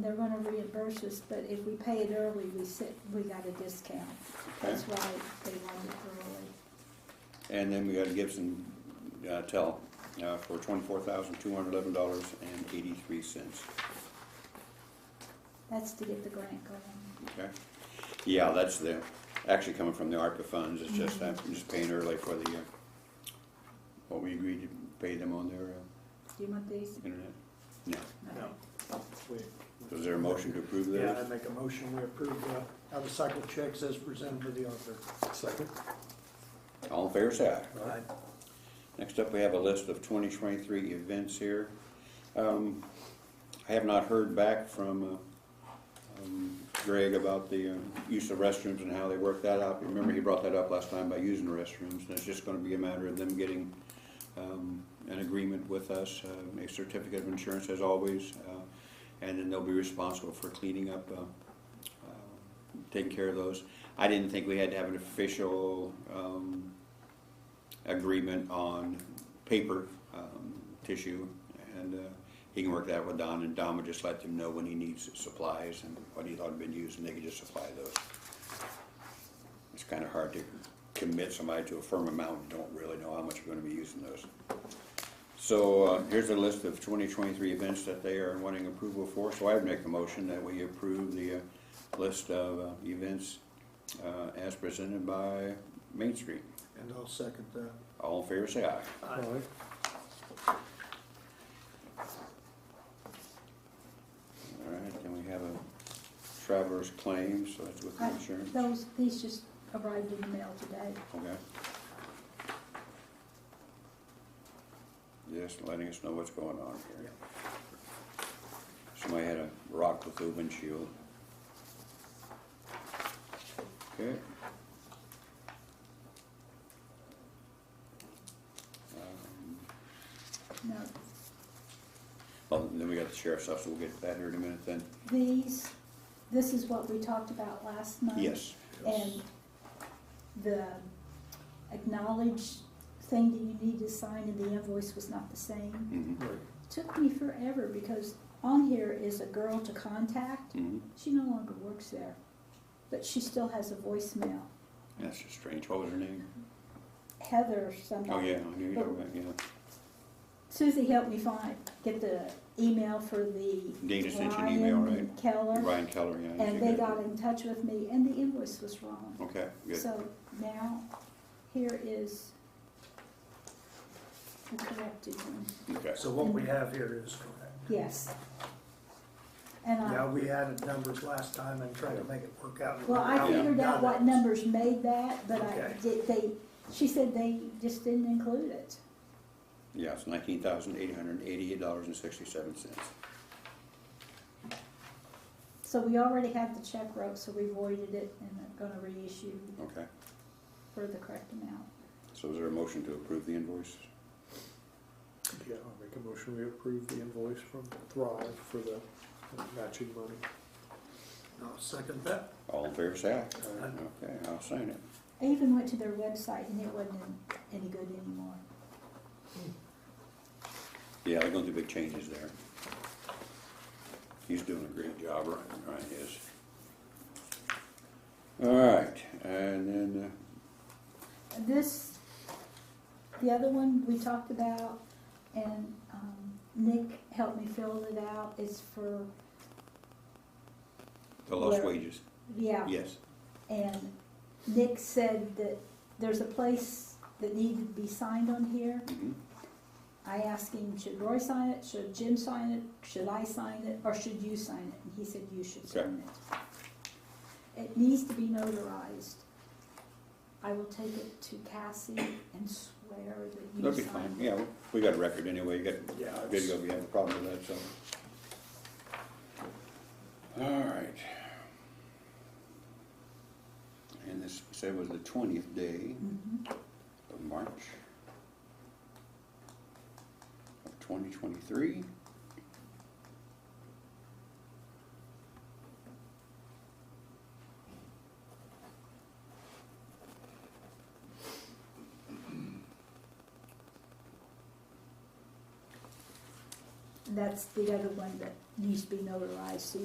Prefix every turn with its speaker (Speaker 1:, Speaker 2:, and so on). Speaker 1: They're gonna reimburse us, but if we pay it early, we sit, we got a discount. That's why they want it early.
Speaker 2: And then we got a Gibson uh, Tell uh, for twenty-four thousand two hundred eleven dollars and eighty-three cents.
Speaker 1: That's to get the grant going.
Speaker 2: Okay, yeah, that's the actually coming from the ARPA funds. It's just that I'm just paying early for the uh, what we agreed to pay them on their uh,
Speaker 1: Do you want these?
Speaker 2: internet. No,
Speaker 3: No. We-
Speaker 2: was there a motion to approve those?
Speaker 3: Yeah, I make a motion, we approve uh, out-of-cycle checks as presented to the author.
Speaker 4: Second.
Speaker 2: All in favor, say aye.
Speaker 4: Aye.
Speaker 2: Next up, we have a list of 2023 events here. Um, I have not heard back from uh, um, Greg about the uh, use of restrooms and how they work that out. Remember, he brought that up last time by using the restrooms, and it's just going to be a matter of them getting um, an agreement with us, uh, a certificate of insurance as always, uh, and then they'll be responsible for cleaning up, uh, uh, taking care of those. I didn't think we had to have an official um, agreement on paper um, tissue, and uh, he can work that with Don, and Don would just let them know when he needs supplies and what he thought had been used, and they could just supply those. It's kind of hard to commit somebody to a firm amount and don't really know how much you're going to be using those. So uh, here's a list of 2023 events that they are wanting approval for, so I would make a motion that we approve the uh, list of uh, events uh, as presented by Main Street.
Speaker 3: And I'll second that.
Speaker 2: All in favor, say aye.
Speaker 4: Aye.
Speaker 2: All right, then we have a traveler's claim, so that's with the
Speaker 1: I-
Speaker 2: insurance,
Speaker 1: Those, these just arrived in the mail today.
Speaker 2: okay? Just letting us know what's going on here. Somebody had a rock with a windshield. Okay. Um,
Speaker 1: No,
Speaker 2: Well, oh, then we got the sheriff's office, we'll get to that here in a minute then.
Speaker 1: these, this is what we talked about last month.
Speaker 2: Yes,
Speaker 1: And the acknowledged thing that you need to sign in the invoice was not the same.
Speaker 2: mhm,
Speaker 4: Right.
Speaker 1: Took me forever because on here is a girl to contact.
Speaker 2: mhm.
Speaker 1: She no longer works there, but she still has a voicemail.
Speaker 2: That's just strange. What was her name?
Speaker 1: Heather or somebody.
Speaker 2: Oh, yeah, I knew you were talking about,
Speaker 1: Susie helped me find, get the email for the
Speaker 2: yeah. Dana sent you an email,
Speaker 1: Ryan
Speaker 2: right?
Speaker 1: Keller.
Speaker 2: Ryan Keller, yeah. you
Speaker 1: And they
Speaker 2: did.
Speaker 1: got in touch with me and the invoice was wrong.
Speaker 2: Okay, good.
Speaker 1: So now, here is the corrected one,
Speaker 2: Okay,
Speaker 3: So what we have here is correct.
Speaker 1: yes. And
Speaker 3: Yeah,
Speaker 1: I,
Speaker 3: we added numbers last time and tried to make it work out.
Speaker 1: well, I
Speaker 3: how we
Speaker 1: figured out
Speaker 3: done
Speaker 1: what
Speaker 3: it.
Speaker 1: numbers made that, but I
Speaker 3: Okay.
Speaker 1: did, they, she said they just didn't include it.
Speaker 2: yeah, it's nineteen thousand eight hundred and eighty-eight dollars and sixty-seven cents.
Speaker 1: So we already had the check wrote, so we voided it and are gonna reissue
Speaker 2: Okay,
Speaker 1: for the correct amount.
Speaker 2: so is there a motion to approve the invoice?
Speaker 4: Yeah, I'll make a motion, we approve the invoice from Thrive for the matching money.
Speaker 3: I'll second that.
Speaker 2: All in favor, say aye.
Speaker 3: Aye.
Speaker 2: Okay, I'll sign it.
Speaker 1: I even went to their website and it wasn't any good anymore.
Speaker 2: Yeah, they're going through big changes there. He's doing a great job, Ryan, Ryan is. All right, and then, uh,
Speaker 1: This, the other one we talked about, and um, Nick helped me fill it out, is for,
Speaker 2: the lost
Speaker 1: Where-
Speaker 2: wages,
Speaker 1: yeah.
Speaker 2: yes.
Speaker 1: And Nick said that there's a place that needed to be signed on here.
Speaker 2: mhm.
Speaker 1: I asked him, should Roy sign it, should Jim sign it, should I sign it, or should you sign it? And he said, you should
Speaker 2: Okay.
Speaker 1: sign it. It needs to be notarized. I will take it to Cassie and swear that you
Speaker 2: That'll be
Speaker 1: signed
Speaker 2: fine,
Speaker 1: it.
Speaker 2: yeah, we got a record anyway, you got
Speaker 3: Yeah, it's-
Speaker 2: Uh, video, we have a problem with that, so. All right. And this said was the twentieth day
Speaker 1: Mhm.
Speaker 2: of March of twenty twenty-three.
Speaker 1: That's the other one that needs to be notarized, so